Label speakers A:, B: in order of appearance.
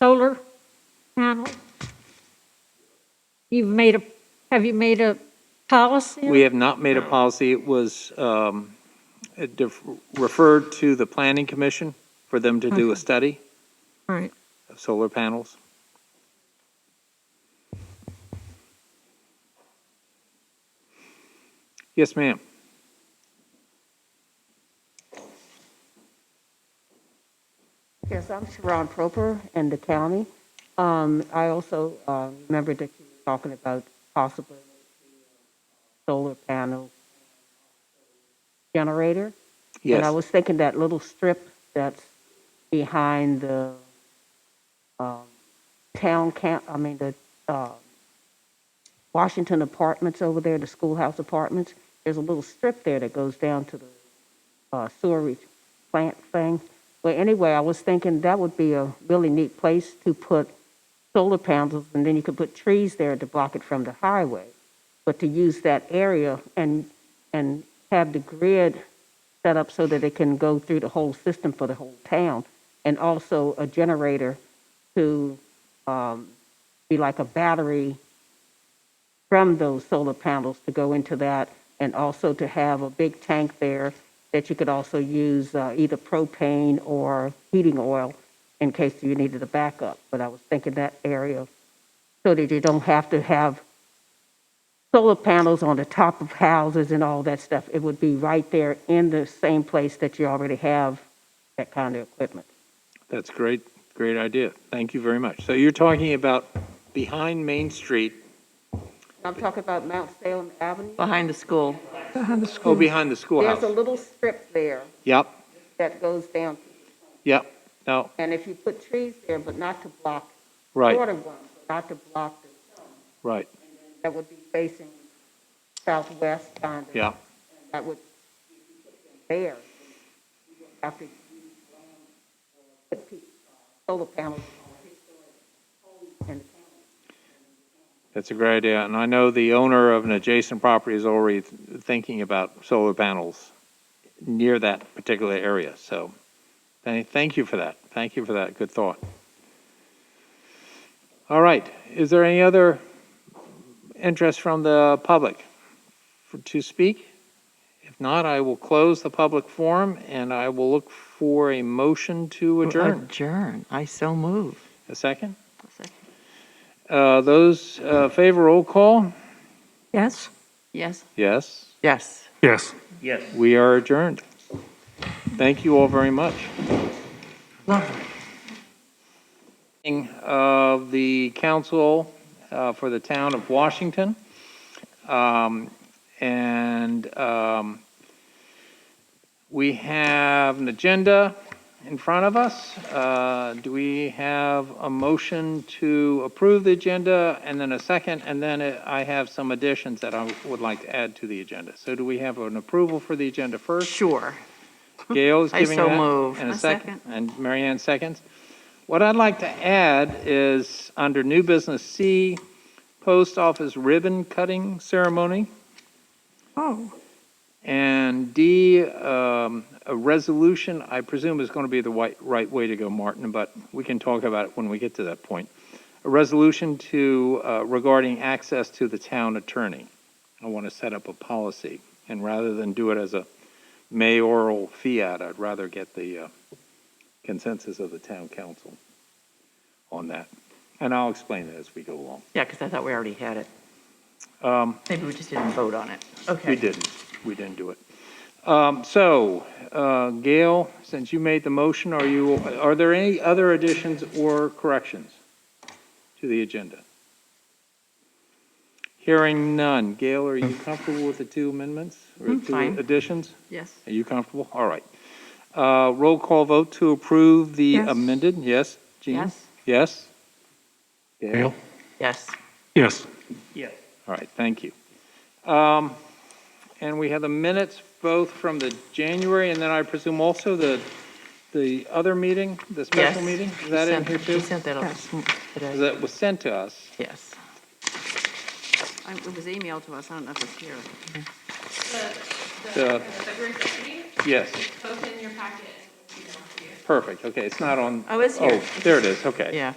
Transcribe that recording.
A: solar panels? You've made a, have you made a policy?
B: We have not made a policy. It was um, it def- referred to the planning commission for them to do a study
A: All right,
B: of solar panels. Yes, ma'am.
C: Yes, I'm Sharon Proper and the county. Um, I also, uh, remember that you were talking about possibly uh, solar panels, uh, generator. And I
B: Yes,
C: was thinking that little strip that's behind the, um, town camp, I mean, the, uh, Washington Apartments over there, the schoolhouse apartments. There's a little strip there that goes down to the uh, sewerage plant thing. But anyway, I was thinking that would be a really neat place to put solar panels, and then you could put trees there to block it from the highway. But to use that area and, and have the grid set up so that it can go through the whole system for the whole town, and also a generator to um, be like a battery from those solar panels to go into that, and also to have a big tank there that you could also use uh, either propane or heating oil in case you needed a backup. But I was thinking that area, so that you don't have to have solar panels on the top of houses and all that stuff. It would be right there in the same place that you already have that kind of equipment.
B: that's great, great idea. Thank you very much. So you're talking about behind Main Street,
C: I'm talking about Mount Salem Avenue.
D: Behind the school.
B: oh, behind the
C: There's a
B: schoolhouse.
C: little strip there
B: Yep,
C: that goes down,
B: yep, no,
C: and if you put trees there, but not to block
B: right,
C: Water ones, not to block, the-
B: right,
C: that would be facing southwest kind of.
B: yeah,
C: That would be there. After you put pe- solar panels. And
B: that's a great idea. And I know the owner of an adjacent property is already th- thinking about solar panels near that particular area, so thank, thank you for that. Thank you for that, good thought. All right, is there any other interest from the public for- to speak? If not, I will close the public forum and I will look for a motion to adjourn.
D: Adjourn. I so move.
B: A second? Uh, Those uh, favor roll call?
A: yes?
D: Yes.
B: Yes.
D: Yes.
E: Yes.
B: We are adjourned. Thank you all very much. Lovely. Of the council uh, for the town of Washington. Um, And um, we have an agenda in front of us. Uh, Do we have a motion to approve the agenda and then a second? And then uh, I have some additions that I would like to add to the agenda. So do we have an approval for the agenda first?
D: Sure.
B: Gail is
D: I
B: giving
D: so
B: that.
D: move.
B: And a
D: I
B: second, and Mary Ann seconds. What I'd like to add is under new business C, post office ribbon cutting ceremony.
A: Oh,
B: And D, um, a resolution, I presume is going to be the right, right way to go, Martin, but we can talk about it when we get to that point. A resolution to, uh, regarding access to the town attorney. I want to set up a policy, and rather than do it as a mayoral fiat, I'd rather get the uh, consensus of the town council on that. And I'll explain it as we go along.
D: Yeah, because I thought we already had it.
B: Um,
D: Maybe we just didn't vote on it. Okay.
B: We didn't, we didn't do it. Um, So, uh, Gail, since you made the motion, are you, are there any other additions or corrections to the agenda? Hearing none. Gail, are you comfortable with the two amendments? or
D: I'm
B: two
D: Hmm. fine.
B: Additions?
D: Yes.
B: Are you comfortable? All right. Uh, Roll call vote to approve the
A: Yes.
B: amended, yes? Jean?
D: Yes.
B: Yes?
E: Gail?
D: Yes.
E: Yes.
B: All right, thank you. Um, And we have the minutes both from the January and then I presume also the, the other meeting, the special
D: Yes.
B: meeting?
D: She
B: Is that in
D: sent-
B: here too?
D: She sent that out this m-
B: Because
D: today.
B: That was sent to us.
D: Yes.
F: I- It was emailed to us, I don't know if it's here.
B: The-
G: February 15th,
B: Yes,
G: both in your packet. and you can see it.
B: perfect, okay, it's not on.
F: Oh, it's here.
B: There it is, okay.
D: Oh, yeah.